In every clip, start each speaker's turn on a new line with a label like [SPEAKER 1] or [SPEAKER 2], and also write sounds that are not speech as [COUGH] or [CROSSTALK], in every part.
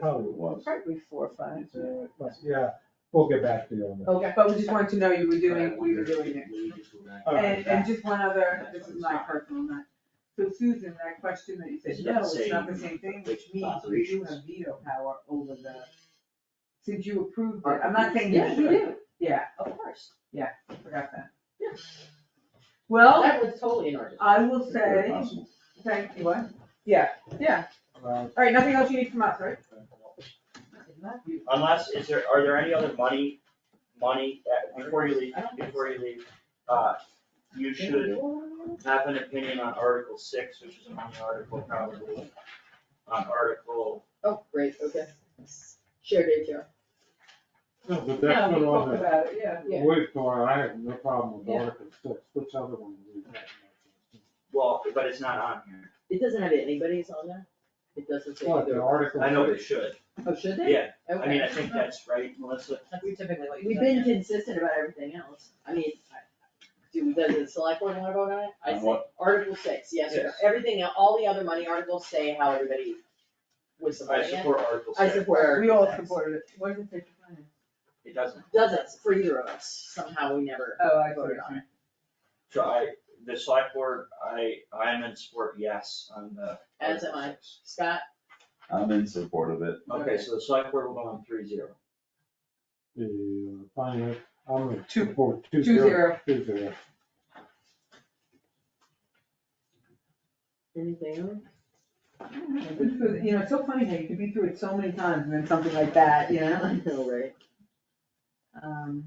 [SPEAKER 1] probably was.
[SPEAKER 2] Probably four or five.
[SPEAKER 1] But, yeah, we'll get back to you on that.
[SPEAKER 2] Okay, but we just wanted to know you were doing, we were doing it.
[SPEAKER 1] All right.
[SPEAKER 2] And, and just one other, this is my personal note. So Susan, that question that you said, no, it's not the same thing, which means we do have veto power over the, since you approved it, I'm not saying you
[SPEAKER 3] Yes, you
[SPEAKER 2] should,
[SPEAKER 3] do,
[SPEAKER 2] yeah,
[SPEAKER 3] of course.
[SPEAKER 2] I forgot that.
[SPEAKER 3] Yeah.
[SPEAKER 2] Well,
[SPEAKER 3] Oh, That was totally inordinate.
[SPEAKER 2] I will
[SPEAKER 1] If
[SPEAKER 2] say,
[SPEAKER 1] possible.
[SPEAKER 2] thank you, what? Yeah, yeah,
[SPEAKER 1] Uh,
[SPEAKER 2] all right, nothing else you need from us, right?
[SPEAKER 4] Unless, is there, are there any other money, money, that- before you leave, before you leave, uh, you should have an opinion on Article six, which is a money article probably. On Article,
[SPEAKER 3] Oh, great, okay. Shared HR.
[SPEAKER 1] No, but
[SPEAKER 2] Yeah,
[SPEAKER 1] that's
[SPEAKER 2] we
[SPEAKER 1] what
[SPEAKER 2] talked
[SPEAKER 1] on the,
[SPEAKER 2] about it, yeah.
[SPEAKER 3] yeah.
[SPEAKER 1] we've gone, I have no problem with
[SPEAKER 3] Yeah.
[SPEAKER 1] Article six, which other one? do we have?
[SPEAKER 4] well, but it's not on here.
[SPEAKER 3] It doesn't have anybody's on there? It doesn't say
[SPEAKER 1] What, the
[SPEAKER 3] either.
[SPEAKER 1] Article?
[SPEAKER 4] I know
[SPEAKER 1] six?
[SPEAKER 4] they should.
[SPEAKER 3] Oh, should they?
[SPEAKER 4] Yeah, I mean,
[SPEAKER 3] Okay.
[SPEAKER 4] I think that's right, Melissa.
[SPEAKER 3] That's-
[SPEAKER 2] We typically like.
[SPEAKER 3] We've been consistent about everything else. I mean, I- do, does the select board wanna vote on it? I
[SPEAKER 1] On
[SPEAKER 3] say, Article six, yes or no.
[SPEAKER 4] Yes.
[SPEAKER 3] Everything, el- all the other money articles say how everybody was
[SPEAKER 4] I
[SPEAKER 3] supporting it.
[SPEAKER 4] support Article
[SPEAKER 3] I
[SPEAKER 4] six.
[SPEAKER 3] support Article
[SPEAKER 2] We all
[SPEAKER 3] six.
[SPEAKER 2] supported it. What is it?
[SPEAKER 4] It doesn't.
[SPEAKER 3] Doesn't, for either of us, somehow we never
[SPEAKER 2] Oh, I
[SPEAKER 3] voted on it.
[SPEAKER 4] So I, the select board, I, I'm in support yes on the.
[SPEAKER 3] As am
[SPEAKER 4] Article
[SPEAKER 3] I.
[SPEAKER 4] six.
[SPEAKER 3] Scott,
[SPEAKER 5] I'm in support of it.
[SPEAKER 4] Okay, so the select board will go on three zero.
[SPEAKER 1] The uh, finance, I'm a two
[SPEAKER 2] Two zero.
[SPEAKER 1] Two zero.
[SPEAKER 3] anything else?
[SPEAKER 2] You know, it's so funny how you could be through it so many times and then something like that, you know?
[SPEAKER 3] I know, right?
[SPEAKER 2] Um,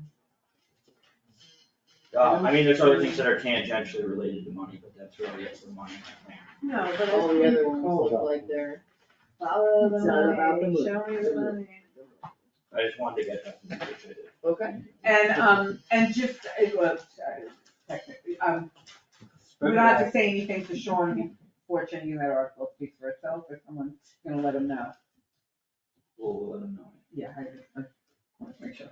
[SPEAKER 4] Uh, I mean, there's other things that are tangentially related to money, but that's really it for money.
[SPEAKER 2] No, but
[SPEAKER 3] All the other ones
[SPEAKER 1] Hold
[SPEAKER 3] look
[SPEAKER 1] up.
[SPEAKER 3] like they're.
[SPEAKER 2] Follow
[SPEAKER 3] It's not about the money.
[SPEAKER 2] show me the money.
[SPEAKER 4] I just wanted to get that from you, which I did.
[SPEAKER 3] Okay.
[SPEAKER 2] And, um, and just, it was, uh, technically, um, we don't have to say anything to Sean, fortunately, that article speaks for itself, if someone's gonna let him know.
[SPEAKER 4] We'll we'll let them know.
[SPEAKER 2] Yeah, I, I wanna make sure.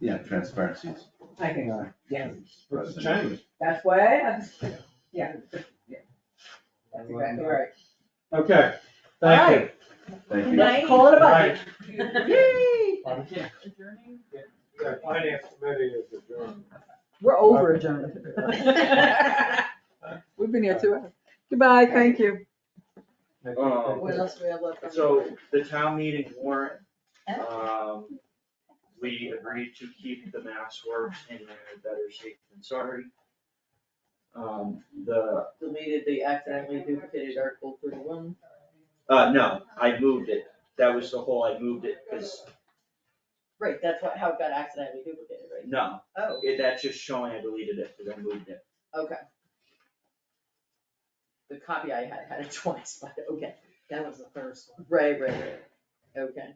[SPEAKER 5] Yeah, transparency is
[SPEAKER 2] I think,
[SPEAKER 1] Yeah.
[SPEAKER 2] yeah,
[SPEAKER 1] What's the change?
[SPEAKER 2] that's why, I just- yeah, yeah, that's exactly right.
[SPEAKER 1] Okay, thank you.
[SPEAKER 5] Thank you. Uh,
[SPEAKER 3] Night.
[SPEAKER 2] Call it a
[SPEAKER 1] Right.
[SPEAKER 2] budget. Yay!
[SPEAKER 1] Pardon?
[SPEAKER 3] Adjourning?
[SPEAKER 1] The finance committee is adjourned.
[SPEAKER 2] We're over adjourned. We've been here two hours. Goodbye, thank you.
[SPEAKER 1] Thank you.
[SPEAKER 4] Um,
[SPEAKER 3] [LAUGHS] What else do we have left on? the-
[SPEAKER 4] So the town meeting warrant,
[SPEAKER 3] Oh.
[SPEAKER 4] um, we agreed to keep the mass works in there, better safe than sorry. Um, the,
[SPEAKER 3] Deleted the accidentally duplicated article thirty-one.
[SPEAKER 4] uh, no, I moved it. That was the whole, I moved it, cause,
[SPEAKER 3] Right, that's what, how it got accidentally duplicated, right?
[SPEAKER 4] no,
[SPEAKER 3] Oh,
[SPEAKER 4] it, that's just showing I deleted it, cause I moved it.
[SPEAKER 3] okay. The copy I had had it [LAUGHS] twice, but okay,
[SPEAKER 6] That was the first one.
[SPEAKER 3] right, right, right, okay,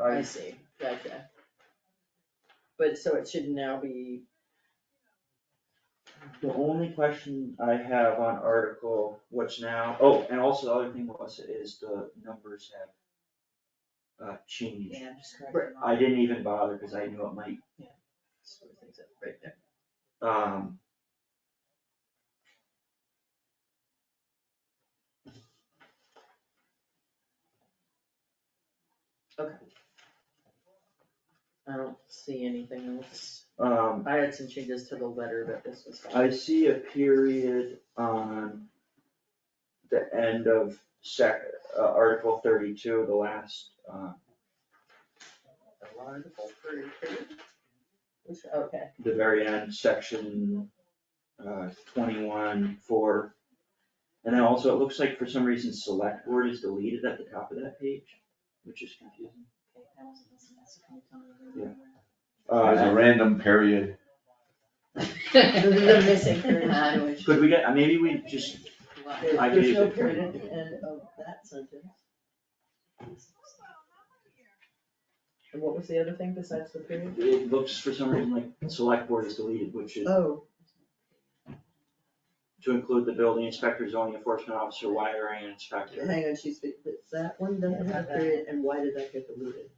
[SPEAKER 3] I
[SPEAKER 4] I,
[SPEAKER 3] see, gotcha. But so it should now be,
[SPEAKER 4] the only question I have on article, what's now, oh, and also the other thing was, is the numbers have uh, changed.
[SPEAKER 6] Yeah, I'm just
[SPEAKER 3] Right.
[SPEAKER 6] correcting. all
[SPEAKER 4] I didn't even bother, cause I knew it might
[SPEAKER 3] sort of things up right there.
[SPEAKER 4] Um.
[SPEAKER 3] I don't see anything else.
[SPEAKER 4] Um,
[SPEAKER 3] I had some changes to the letter, but this was. fine.
[SPEAKER 4] I see a period on the end of sec, uh, Article thirty-two, the last, uh,
[SPEAKER 3] Article three, three. Which, okay,
[SPEAKER 4] the very end, section, uh, twenty-one, four. And then also, it looks like for some reason, select word is deleted at the top of that page, which is confusing.
[SPEAKER 5] There's
[SPEAKER 4] Uh,
[SPEAKER 5] a random period.
[SPEAKER 3] the missing period, I don't know.
[SPEAKER 4] Uh, could we get, maybe we just,
[SPEAKER 3] There-
[SPEAKER 4] I
[SPEAKER 3] There's
[SPEAKER 4] gave
[SPEAKER 3] no
[SPEAKER 4] it.
[SPEAKER 3] period at the end of that sentence. And what was the other thing besides the period?
[SPEAKER 4] it looks for some reason like select word is deleted, which is
[SPEAKER 3] Oh,
[SPEAKER 4] to include the building inspector, zoning enforcement officer, wiring inspector.
[SPEAKER 3] hang on, she's, but that one doesn't have a period, and why did that get deleted?